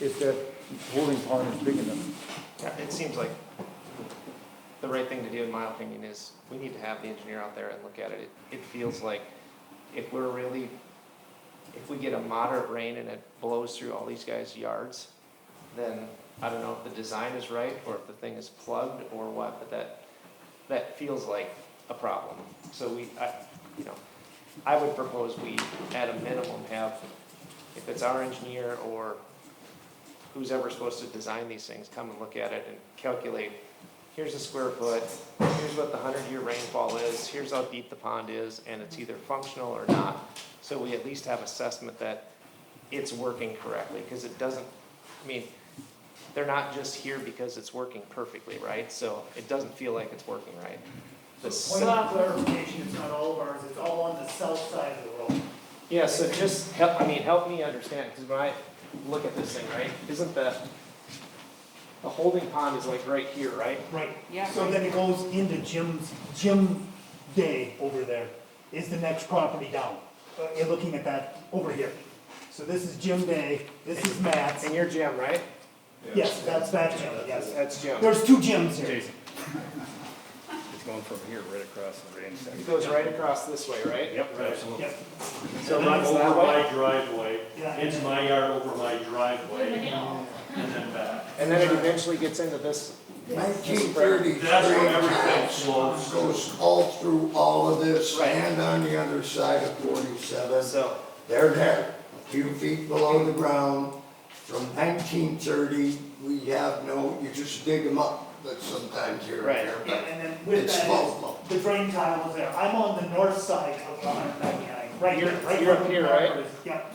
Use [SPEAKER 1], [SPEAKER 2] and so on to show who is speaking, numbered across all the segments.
[SPEAKER 1] if that holding pond is big enough.
[SPEAKER 2] Yeah, it seems like the right thing to do, in my opinion, is we need to have the engineer out there and look at it. It, it feels like if we're really, if we get a moderate rain and it blows through all these guys' yards, then I don't know if the design is right or if the thing is plugged or what, but that, that feels like a problem. So we, I, you know, I would propose we, at a minimum, have, if it's our engineer or who's ever supposed to design these things, come and look at it and calculate, here's a square foot, here's what the hundred-year rainfall is, here's how deep the pond is, and it's either functional or not. So we at least have assessment that it's working correctly, because it doesn't, I mean, they're not just here because it's working perfectly, right? So it doesn't feel like it's working right. The
[SPEAKER 3] Point of clarification, it's not all of ours, it's all on the south side of the road.
[SPEAKER 2] Yeah, so just help, I mean, help me understand, because when I look at this thing, right, isn't the, the holding pond is like right here, right?
[SPEAKER 3] Right.
[SPEAKER 4] Yeah.
[SPEAKER 3] So then it goes into Jim's, Jim Day over there is the next property down. Uh, You're looking at that over here. So this is Jim Day, this is Matt's.
[SPEAKER 2] And your Jim, right?
[SPEAKER 3] Yes, that's that Jim, yes.
[SPEAKER 2] That's Jim.
[SPEAKER 3] There's two Jims here.
[SPEAKER 5] Jason. It's going from here right across the range
[SPEAKER 2] It
[SPEAKER 5] section.
[SPEAKER 2] goes right across this way, right?
[SPEAKER 5] Yep, absolutely.
[SPEAKER 3] Yep.
[SPEAKER 6] So
[SPEAKER 2] And that's that
[SPEAKER 6] over
[SPEAKER 2] way?
[SPEAKER 6] my driveway,
[SPEAKER 3] Yeah.
[SPEAKER 6] it's my yard over my driveway, and then back.
[SPEAKER 2] And then it eventually gets into this,
[SPEAKER 7] Nineteen thirty-three
[SPEAKER 6] That's where everything flows.
[SPEAKER 7] goes all through all of this and on the other side of forty-seven.
[SPEAKER 2] so,
[SPEAKER 7] They're there, a few feet below the ground. From nineteen thirty, we have no, you just dig them up, but sometimes here
[SPEAKER 2] Right.
[SPEAKER 7] and there.
[SPEAKER 3] Yeah,
[SPEAKER 7] but-
[SPEAKER 3] and then with
[SPEAKER 7] It's full.
[SPEAKER 3] that, the drain tile was there. I'm on the north side of the hundred ninety-nine, right here,
[SPEAKER 2] You're-
[SPEAKER 3] right
[SPEAKER 2] you're
[SPEAKER 3] where
[SPEAKER 2] up
[SPEAKER 3] the
[SPEAKER 2] here,
[SPEAKER 3] marker
[SPEAKER 2] right?
[SPEAKER 3] is. Yep.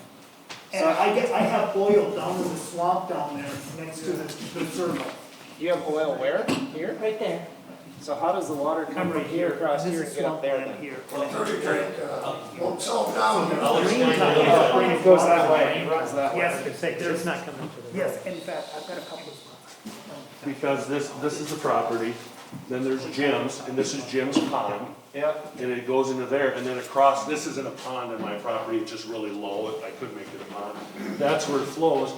[SPEAKER 3] And I get, I have oil down in the swamp down there next to the, the circle.
[SPEAKER 2] you have oil where? Here? Right there. So how does the water come from here across
[SPEAKER 3] This
[SPEAKER 2] here
[SPEAKER 3] is
[SPEAKER 2] and get up
[SPEAKER 3] swamp
[SPEAKER 2] there
[SPEAKER 3] land
[SPEAKER 2] then?
[SPEAKER 3] here.
[SPEAKER 7] Thirty, thirty, uh, Won't sell down there.
[SPEAKER 2] It goes that way, it runs that way.
[SPEAKER 3] Yes, there's not coming to the. Yes, in fact, I've got a couple of.
[SPEAKER 6] Because this, this is the property, then there's Jim's, and this is Jim's pond,
[SPEAKER 2] Yep,
[SPEAKER 6] and it goes into there, and then across, this isn't a pond in my property, it's just really low, I could make it a pond. That's where it flows,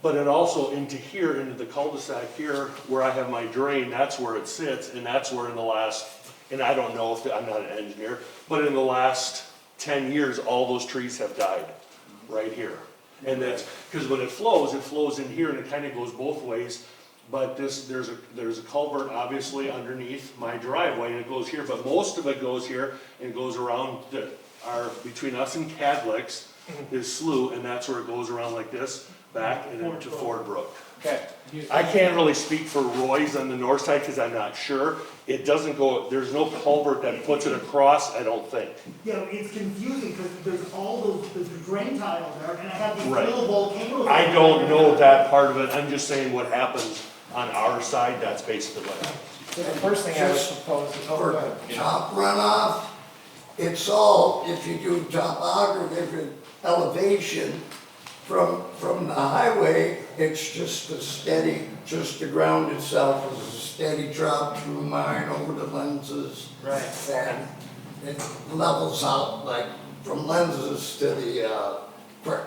[SPEAKER 6] but it also into here, into the cul-de-sac here, where I have my drain, that's where it sits, and that's where in the last, and I don't know if, I'm not an engineer, but in the last ten years, all those trees have died, right here. And that's, because when it flows, it flows in here and it kind of goes both ways. But this, there's a, there's a culvert obviously underneath my driveway and it goes here, but most of it goes here and goes around the, our, between us and Cadlex is slough and that's where it goes around like this, back and into Ford Brook.
[SPEAKER 2] okay.
[SPEAKER 6] I can't really speak for Roy's on the north side because I'm not sure. It doesn't go, there's no culvert that puts it across, I don't think.
[SPEAKER 3] You know, it's confusing because there's all those, the drain tile there and I have these
[SPEAKER 6] Right.
[SPEAKER 3] little volcanoes.
[SPEAKER 6] I don't know that part of it, I'm just saying what happens on our side, that's basically what happens.
[SPEAKER 2] So the first thing I would propose is, oh,
[SPEAKER 7] for
[SPEAKER 2] go ahead.
[SPEAKER 7] top runoff. It's all, if you do topography elevation from, from the highway, it's just a steady, just the ground itself is a steady drop through mine over the lenses.
[SPEAKER 2] Right.
[SPEAKER 7] And it levels out like from lenses to the, uh, creek.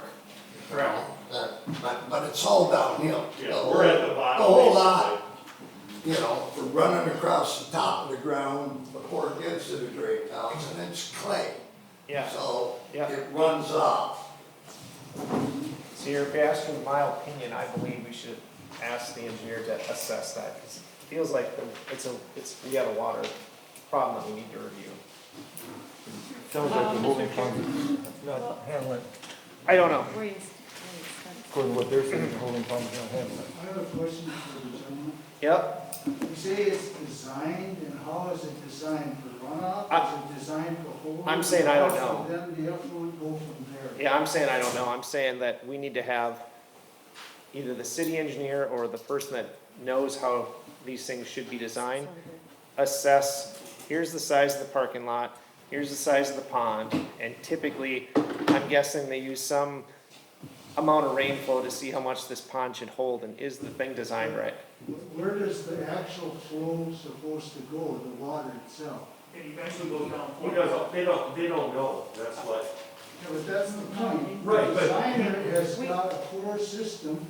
[SPEAKER 2] Right.
[SPEAKER 7] That- But, but it's all downhill.
[SPEAKER 6] Yeah, we're at the bottom.
[SPEAKER 7] The whole lot you know, for running across the top of the ground before it gets to the drain tiles, and it's clay.
[SPEAKER 2] yeah,
[SPEAKER 7] So
[SPEAKER 2] Yeah.
[SPEAKER 7] it runs off.
[SPEAKER 2] so you're asking my opinion, I believe we should ask the engineer to assess that, because it feels like the- it's a, it's, we got a water problem that we need to review.
[SPEAKER 1] Sounds like the holding pond is not handling,
[SPEAKER 2] I don't know.
[SPEAKER 4] Where is-
[SPEAKER 1] according to what they're saying, the holding pond is not handling.
[SPEAKER 8] I have a question for the gentleman.
[SPEAKER 2] Yep,
[SPEAKER 8] You say it's designed, and how is it designed for
[SPEAKER 2] I-
[SPEAKER 8] runoff? Is it designed for holding?
[SPEAKER 2] I'm saying I don't know.
[SPEAKER 8] And Then the effluent go from there.
[SPEAKER 2] yeah, I'm saying I don't know, I'm saying that we need to have either the city engineer or the person that knows how these things should be designed, assess, here's the size of the parking lot, here's the size of the pond, and typically, I'm guessing they use some amount of rainfall to see how much this pond should hold, and is the thing designed right?
[SPEAKER 8] Wh- Where does the actual flow supposed to go, the water itself?
[SPEAKER 3] It eventually goes down.
[SPEAKER 6] Who doesn't, they don't, they don't know, that's what.
[SPEAKER 8] Yeah, but that's the point.
[SPEAKER 6] Right, but-
[SPEAKER 8] The designer has got a poor system